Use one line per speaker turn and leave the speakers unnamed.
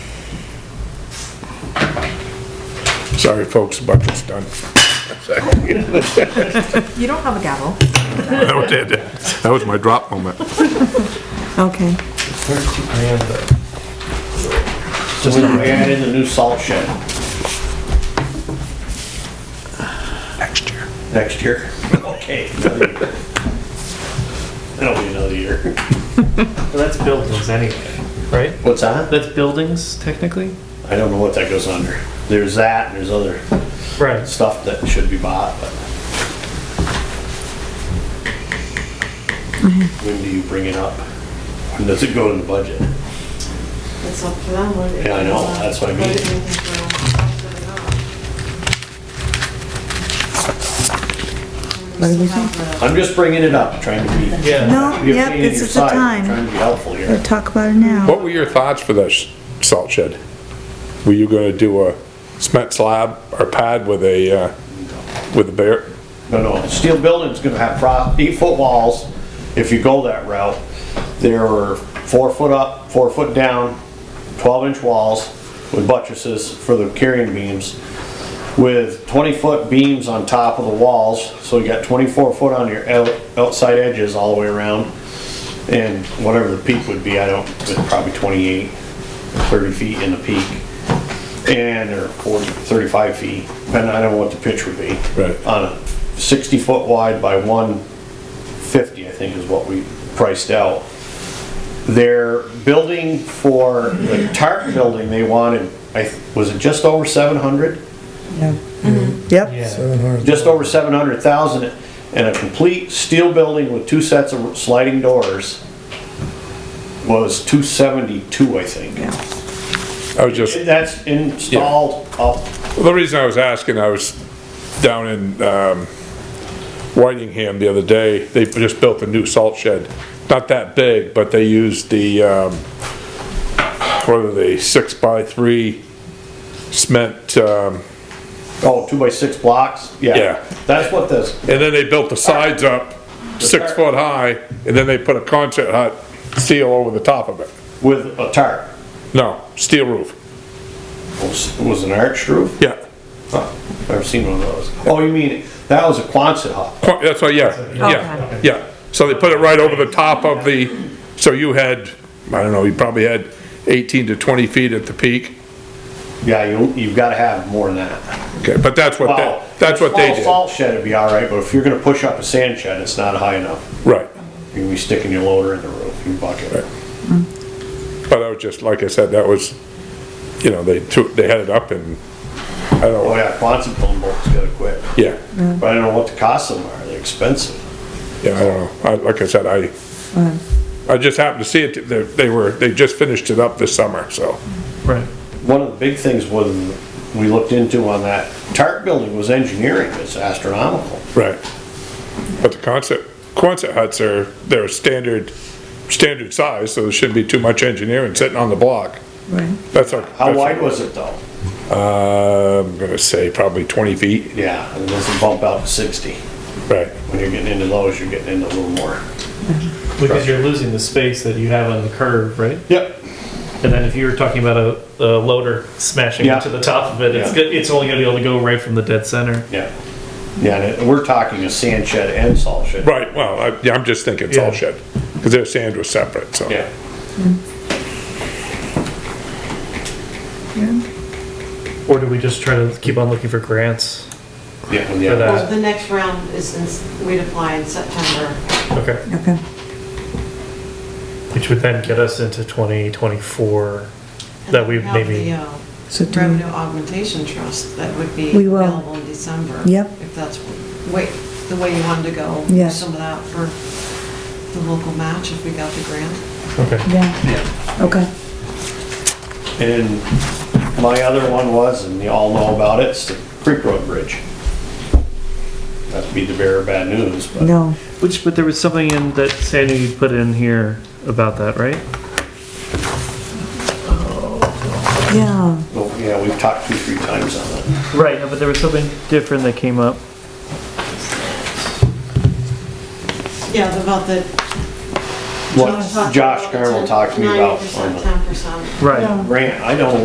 Sorry, folks, budget's done.
You don't have a gavel.
That was it. That was my drop moment.
Okay.
Thirteen grand, but. Just we added a new salt shed. Next year. Next year? Okay. another year. That'll be another year.
That's buildings anyway, right?
What's that?
That's buildings technically?
I don't know what that goes under. There's that and there's other
Right.
stuff that should be bought, but.
Mm-hmm.
When do you bring it up? When does it go in the budget?
It's up to them whether they
Yeah, I know, that's what I mean.
put uh, it in for
What do we
us or not. We still have the-
I'm just bringing it up, trying to be.
Yeah.
No,
be a
yep,
pain in
this
your
is the
side,
time.
Trying to be helpful here.
We'll talk about it now.
What were your thoughts for this salt shed? Were you gonna do a cement slab or pad with a, uh, with a bear?
No, no, steel building's gonna have fro- eight-foot walls, if you go that route. There are four foot up, four foot down, twelve-inch walls with buttresses for the carrying beams, with twenty-foot beams on top of the walls, so you got twenty-four foot on your out- outside edges all the way around. And whatever the peak would be, I don't, it's probably 28, 30 feet in the peak. And, or 40, 35 feet, and I don't know what the pitch would be.
Right.
On a 60 foot wide by 150, I think is what we priced out. Their building for, the tarp building, they wanted, I, th- was it just over 700?
Yep,
just over seven hundred thousand, and a complete steel building with two sets of sliding doors was two seventy-two, I think.
I was just,
That's installed up,
the reason I was asking, I was down in, um, Whitingham the other day. They just built a new salt shed. Not that big, but they used the, um, what are they, six by three cement, um,
oh, two by six blocks,
Yeah.
yeah. That's what this,
And then they built the sides up, six foot high, and then they put a concert hut steel over the top of it.
with a tarp,
No, steel roof.
It was it was an arch roof,
Yeah.
Huh, never seen one of those. Oh, you mean, that was a Quonset hut,
Qu- That's why, yeah, yeah, yeah. So they put it right over the top of the, so you had, I don't know, you probably had eighteen to twenty feet at the peak.
yeah, you, you've gotta have more than that.
Okay, but that's what,
Wow.
they- that's what they
Small
did.
Salt shed would be all right, but if you're gonna push up a sand shed, it's not high enough,
Right.
you're gonna be sticking your loader in the roof, your bucket.
But I was just, like I said, that was, you know, they took, they had it up and, I don't
Oh
know,
yeah, Quonset phone bolts gotta quit.
yeah,
But I don't know what the cost of them are, they're expensive.
yeah, I don't know. I, like I said, I, I just happened to see it, they, they were, they just finished it up this summer, so.
Right.
One of the big things was, we looked into on that TARP building was engineering, it's astronomical.
Right. But the Quonset, Quonset huts are, they're standard, standard size, so there shouldn't be too much engineering sitting on the block.
right.
That's a.
How wide was it though?
Uh, I'm gonna say probably twenty feet,
Yeah, it doesn't bump out to sixty.
right.
When you're getting into those, you're getting into a little more.
Because you're losing the space that you have on the curve, right?
Yep.
And then if you were talking about a, a loader smashing
Yeah.
into the top of it, it's
Yeah.
good, it's only gonna be able to go right from the dead center.
Yeah. Yeah, and it- we're talking a sand shed and salt shed.
Right, well, I, yeah, I'm just thinking salt
Yeah.
shed, cause their sand was separate, so.
Yeah.
Or do we just try to keep on looking for grants
Yeah,
for
yeah.
Well,
that?
the next round is, in- we'd apply in September.
Okay.
Okay.
Which would then get us into twenty twenty-four, that we
And have the,
maybe,
uh,
So do we-
Revenue Augmentation Trust, that would be
We will.
available in December.
Yep.
If that's wait, the way you wanted to go.
Yes.
Some of that for the local match if we got the grant.
okay.
Yeah, okay.
And my other one was, and you all know about it, it's the Creek Road Bridge. Not to be the bearer of bad news, but.
No,
Which, but there was something in that Sandy you put in here about that, right?
yeah,
Well, yeah, we've talked two, three times on it.
Right, but there was something different that came up.
Yeah, about the.
What Josh Carroll talked to me about on
Ninety percent,
the
ten percent.
Right.
Yeah.
grant, I don't